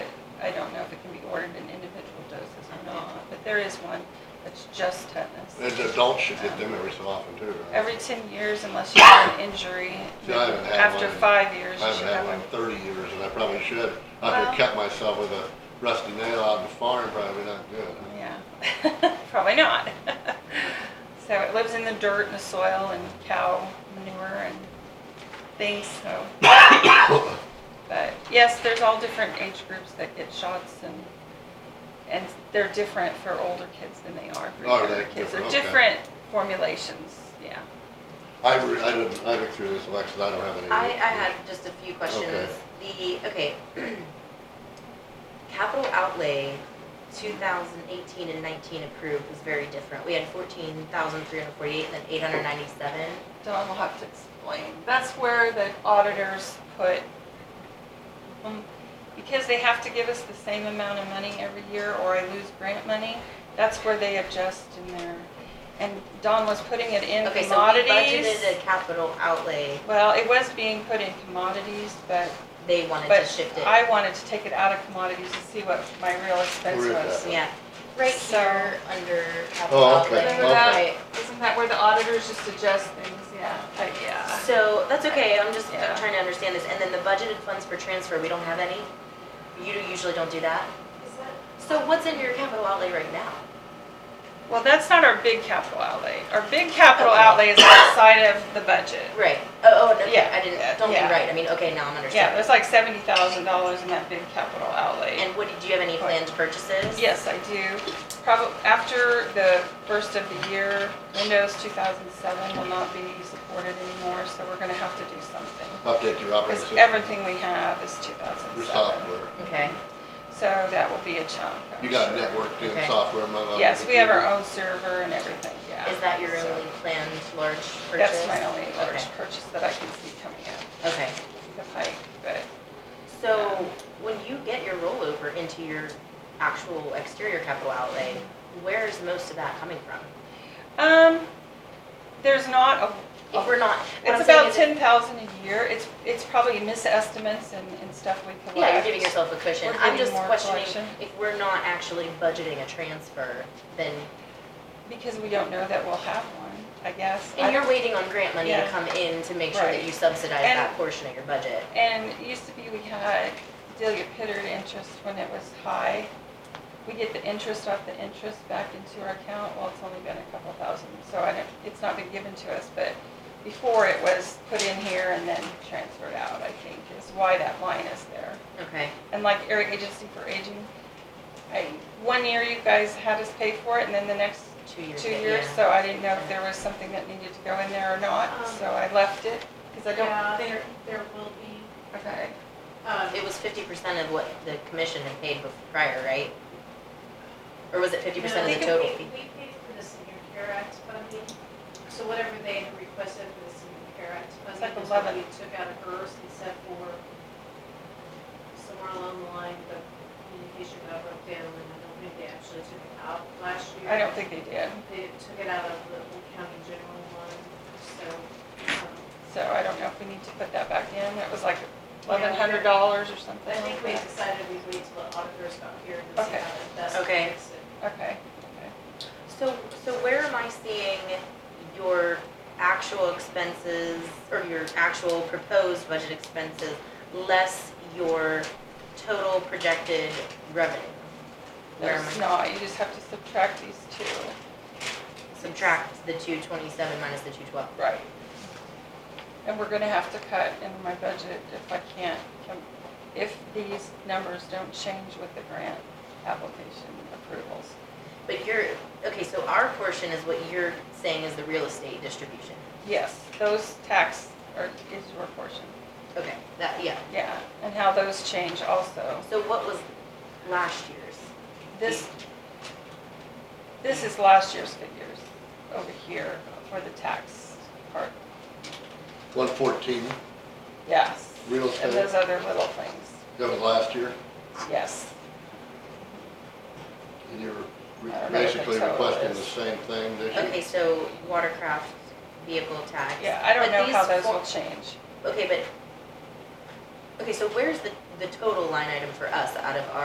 There is one. It's just tetanus. And adults should get them every so often too, right? Every ten years unless you have an injury. See, I haven't had After one in- five years, I you haven't should had have one one. in thirty years, and I probably should. I Well- could cut myself with a rusty nail out on the farm, probably not good. Yeah, probably not. So it lives in the dirt and the soil and cow manure and things, so. But yes, there's all different age groups that get shots and, and they're different for older kids than they are for Oh, younger they're kids. They're different, okay. different formulations, yeah. I, re- I didn't, I looked through this, Alexis, I don't have any. I, I had just a few questions. The, okay. Capital outlay, two thousand eighteen and nineteen approved was very different. We had fourteen thousand three hundred forty-eight and then eight hundred ninety-seven. Don will have to explain. That's where the auditors put, um, because they have to give us the same amount of money every year or I lose grant money, that's where they adjust in there. And Don was putting it in Okay, so we budgeted a commodities. capital outlay, Well, it was being put in commodities, but, they wanted to but shift it. I wanted to take it out of commodities to see what my real expense Where is was. Yeah, right So- here, under capital Oh, okay, outlay. Remember that? Right. Isn't that where the auditors just adjust things? Yeah, but yeah. So, that's okay, I'm just, Yeah. I'm trying to understand this, and then the budgeted funds for transfer, we don't have any? You do- usually don't do that? So what's in your capital outlay right now? Well, that's not our big capital outlay. Our big capital Okay. outlay is outside of the budget. Right, oh, oh, okay, Yeah, I yeah, didn't, don't be yeah. right, I mean, okay, now I'm Yeah, understanding. there's like seventy thousand dollars in that big capital outlay. And what, do you have any planned purchases? Yes, I do. Probably after the first of the year, Windows two thousand seven will not be supported anymore, so we're gonna have to do something. Update your Because operating system. everything we have is two thousand Your seven. software. Okay, So that will be a chunk. I'm You got sure. a network doing Okay. software, among other Yes, we have our computers. own server and everything, yeah. is that your So only planned large purchase? That's my only large Okay. purchase that I can see coming up. Okay, the pike, but so when you get your rollover into your actual exterior capital outlay, where is most of that coming from? um, there's not a. If we're not, what I'm It's saying about is. ten thousand a year. It's it's probably misestimates and, and stuff we collect. Yeah, you're giving yourself a cushion. We're I'm getting just more questioning, collection. if we're not actually budgeting a transfer, then, because we don't know that we'll have one. I guess. I- and you're waiting on grant money Yeah. to come in to make sure Right. that you subsidize And- that portion of your budget. And it used to be we had Delia Pittard interest when it was high. We get the interest off the interest back into our account. Well, it's only been a couple thousand, so I don't, it's not been given to us, but before it was put in here and then transferred out, I think, is why that line is there. Okay. and like Area Agency for Aging, I, one year you guys had us pay for it, and then the next Two years. two yeah. years, so I didn't know if there was something that needed to go in there or not, Um, so I left it, because I Yeah, don't there, think, there will be, okay. um, It was fifty percent of what the commission had paid bef- prior, right? Or was it fifty percent No, of we- the total we- fee? We paid for the Senior Care Act funding, so whatever they had requested for the Senior Care Act It's funding. like is what 11. We took out of hers and set for somewhere along the line, the communication got broke down, and I don't think they actually took it out last year. I don't think they did, They took it out of the Old County General line, so, um, so I don't know if we need to put that back in, it was like eleven hundred dollars or something. I think we like decided we'd wait till the auditors got here and see Okay. how to best Okay. fix it. that. Okay, okay. So, so where am I seeing your actual expenses or your actual proposed budget expenses less your total projected revenue? Where am There's I not, you just have to subtract these two. subtract the two twenty-seven minus the two twelve? Right. And we're gonna have to cut in my budget if I can't, com- if these numbers don't change with the grant application approvals. But you're, okay, so our portion is what you're saying is the real estate distribution. Yes, those tax are, is your portion, Okay, that, yeah. yeah, and how those change also. So what was last year's? This, this is last year's figures over here for the tax part, One fourteen, yes. Real estate. And those other little things, that was last year, yes, and you're re- I don't know what the basically total requesting the is. same thing this year. Okay, so watercraft, vehicle tax. yeah, I don't But know how these those four- will change. Okay, but, okay, so where's the, the total line item for us out of our?